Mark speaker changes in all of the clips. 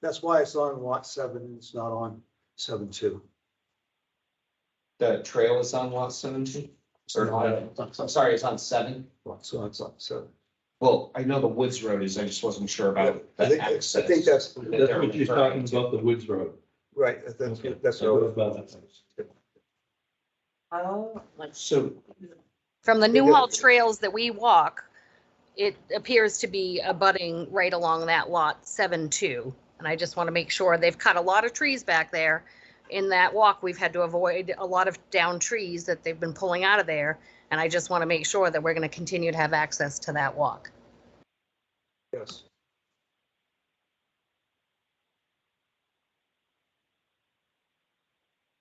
Speaker 1: That's why it's on lot seven, and it's not on seven two.
Speaker 2: The trail is on lot seventeen, or on, I'm sorry, it's on seven.
Speaker 1: So it's on seven.
Speaker 2: Well, I know the Woods Road is, I just wasn't sure about
Speaker 1: I
Speaker 2: the
Speaker 1: think, I
Speaker 2: access.
Speaker 1: think that's,
Speaker 3: That's what she's talking about, the Woods Road.
Speaker 1: right, that's, that's.
Speaker 3: That goes by that place.
Speaker 4: Oh, let's-
Speaker 2: So,
Speaker 5: From the Newhall
Speaker 1: Because-
Speaker 5: trails that we walk, it appears to be abutting right along that lot seven two. And I just want to make sure, they've cut a lot of trees back there. In that walk, we've had to avoid a lot of down trees that they've been pulling out of there. And I just want to make sure that we're going to continue to have access to that walk.
Speaker 1: Yes.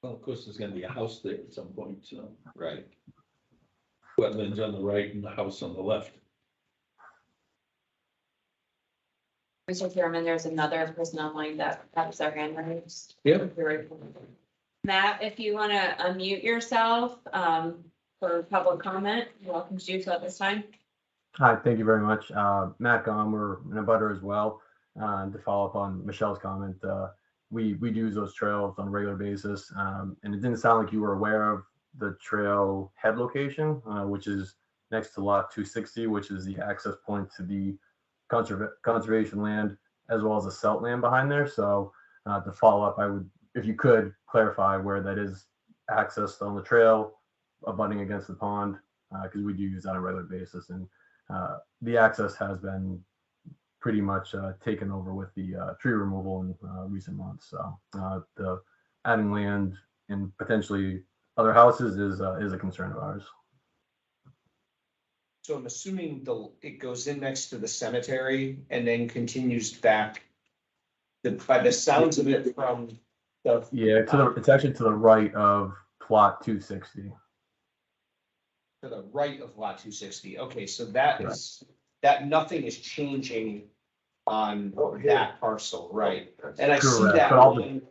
Speaker 3: Well, of course, there's gonna be a house there at some point, so.
Speaker 2: right,
Speaker 3: Wetlands on the right and the house on the left.
Speaker 4: Mr. Chairman, there's another person online that has their hand raised.
Speaker 3: Yeah.
Speaker 4: Matt, if you want to unmute yourself um, for public comment, you're welcome to do so at this time.
Speaker 6: Hi, thank you very much. Uh, Matt Gomer and a butter as well. Uh, to follow up on Michelle's comment, uh, we, we do use those trails on a regular basis. Um, and it didn't sound like you were aware of the trail head location, uh, which is next to lot 260, which is the access point to the conserva- conservation land as well as the salt land behind there. So uh, to follow up, I would, if you could clarify where that is accessed on the trail, abutting against the pond, because we do use that on a regular basis. And uh, the access has been pretty much uh, taken over with the uh, tree removal in uh, recent months. So uh, the adding land and potentially other houses is uh, is a concern of ours.
Speaker 2: so I'm assuming the, it goes in next to the cemetery and then continues back. The, by the sounds of it from the,
Speaker 6: Yeah, to the, it's actually to the right of plot 260.
Speaker 2: to the right of lot two sixty, okay, so that is, that nothing is changing. On
Speaker 1: Oh, here.
Speaker 2: that parcel, right, and I see
Speaker 6: Correct,
Speaker 2: that.
Speaker 6: but all the-
Speaker 2: one-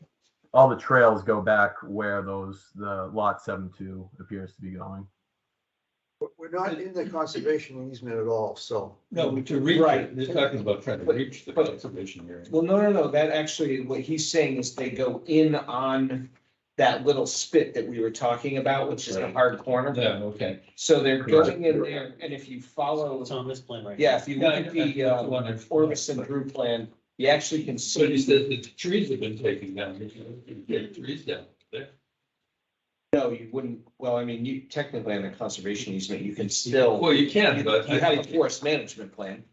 Speaker 6: All the trails go back where those the lot 72 appears to be going.
Speaker 1: We're- We're not in the conservation easement at all, so.
Speaker 3: No, to reach,
Speaker 2: Right.
Speaker 3: it, they're talking about trying to reach the
Speaker 2: But-
Speaker 3: conservation area.
Speaker 2: Well, no, no, no, that actually, what he's saying is they go in on that little spit that we were talking about, which is a
Speaker 7: Right.
Speaker 2: hard corner.
Speaker 3: Yeah, okay.
Speaker 2: So they're
Speaker 6: Correct.
Speaker 2: going in there, and if you follow,
Speaker 7: It's on this plan right.
Speaker 2: yeah, if you look
Speaker 3: Yeah,
Speaker 2: at the,
Speaker 3: that's
Speaker 2: uh,
Speaker 3: the one I-
Speaker 2: Orbison Drew plan, you actually can
Speaker 3: So he
Speaker 2: see,
Speaker 3: says that the trees have been taken down, you can get trees down there.
Speaker 2: no, you wouldn't, well, I mean, you technically on the conservation easement, you can still,
Speaker 3: Well, you
Speaker 2: you
Speaker 3: can, but
Speaker 2: you
Speaker 3: I
Speaker 2: have a
Speaker 3: think
Speaker 2: forest management plan.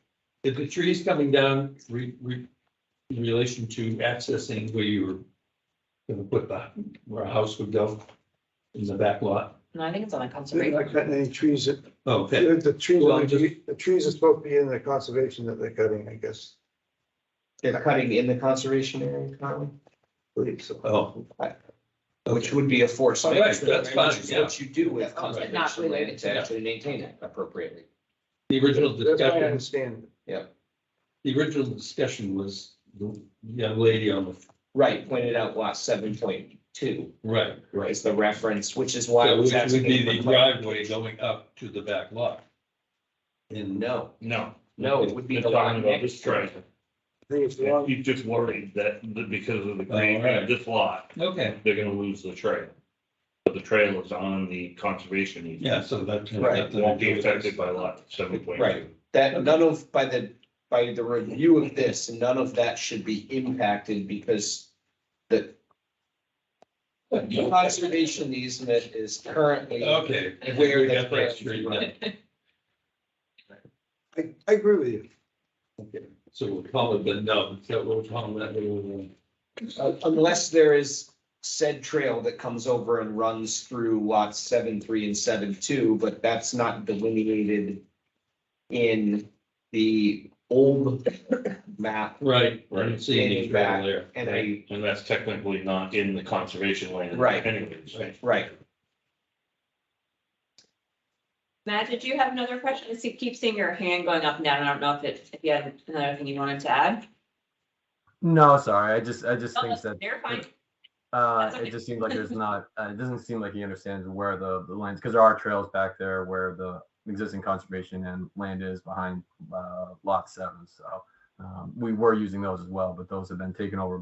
Speaker 3: if the tree's coming down, re, re, in relation to accessing where you were gonna put the, where a house would go in the back lot. Oh,
Speaker 4: No, I think it's on the
Speaker 1: They're
Speaker 4: conservation.
Speaker 1: not cutting any trees. that-
Speaker 3: Okay,
Speaker 1: The trees,
Speaker 3: Well, I'm
Speaker 1: are- the trees are supposed to be in the conservation that they're cutting, I guess.
Speaker 2: They're cutting in the conservation area currently,
Speaker 1: believe so.
Speaker 3: oh.
Speaker 2: which would be a forest
Speaker 3: All right,
Speaker 2: management.
Speaker 3: that's
Speaker 2: plan, which
Speaker 3: fine,
Speaker 2: is
Speaker 3: yeah.
Speaker 2: What you do with
Speaker 1: But not
Speaker 2: conservation land
Speaker 4: related
Speaker 2: to actually maintain it appropriately.
Speaker 3: The original
Speaker 1: That's what I
Speaker 3: discussion
Speaker 1: understand.
Speaker 3: The original discussion was the young lady on the,
Speaker 2: Right, pointed out lot seven point two
Speaker 3: right, right.
Speaker 2: is the reference, which is why. I
Speaker 3: So
Speaker 2: was
Speaker 3: Which would be
Speaker 2: asking
Speaker 3: the
Speaker 2: for clar-
Speaker 3: driveway going up to the back lot. And
Speaker 2: No,
Speaker 7: No.
Speaker 2: no, it would be the
Speaker 7: They're
Speaker 2: lot
Speaker 7: talking about
Speaker 2: next.
Speaker 7: this trail.
Speaker 1: I think it's the wrong-
Speaker 7: He's just worried that because of the
Speaker 3: All
Speaker 7: green,
Speaker 3: right.
Speaker 7: this lot,
Speaker 3: Okay,
Speaker 7: they're gonna lose the trail. But the trail is on the conservation. easement.
Speaker 3: yeah, so that.
Speaker 1: Right.
Speaker 7: It Won't be affected by lot seven point
Speaker 2: Right.
Speaker 7: two.
Speaker 2: That, none of, by the, by the review of this, none of that should be impacted because the conservation easement is currently.
Speaker 3: Okay.
Speaker 2: Where
Speaker 3: We
Speaker 2: the
Speaker 3: got
Speaker 2: trail
Speaker 3: that
Speaker 2: is
Speaker 3: straightened
Speaker 2: run.
Speaker 3: out.
Speaker 1: I, I agree with you.
Speaker 3: So we'll call it, but no, so we'll call that. we
Speaker 2: Uh, Unless there is said trail that comes over and runs through lots seven, three and seven, two, but that's not delineated in the old map.
Speaker 3: Right, I don't see any
Speaker 2: Getting back
Speaker 3: travel there.
Speaker 2: And I,
Speaker 7: And that's technically not in the conservation land.
Speaker 2: Right.
Speaker 7: Anyways.
Speaker 2: right,
Speaker 4: Matt, did you have another question? I see, keep seeing your hand going up and down. I don't know if it, if you had another thing you wanted to add.
Speaker 6: No, sorry, I just I just
Speaker 4: Oh,
Speaker 6: think that
Speaker 4: They're fine.
Speaker 6: Uh,
Speaker 4: That's okay.
Speaker 6: it just seems like there's not, uh, it doesn't seem like he understands where the, the lines, because there are trails back there where the existing conservation and land is behind, uh, lot seven, so. Um, we were using those as well, but those have been taken over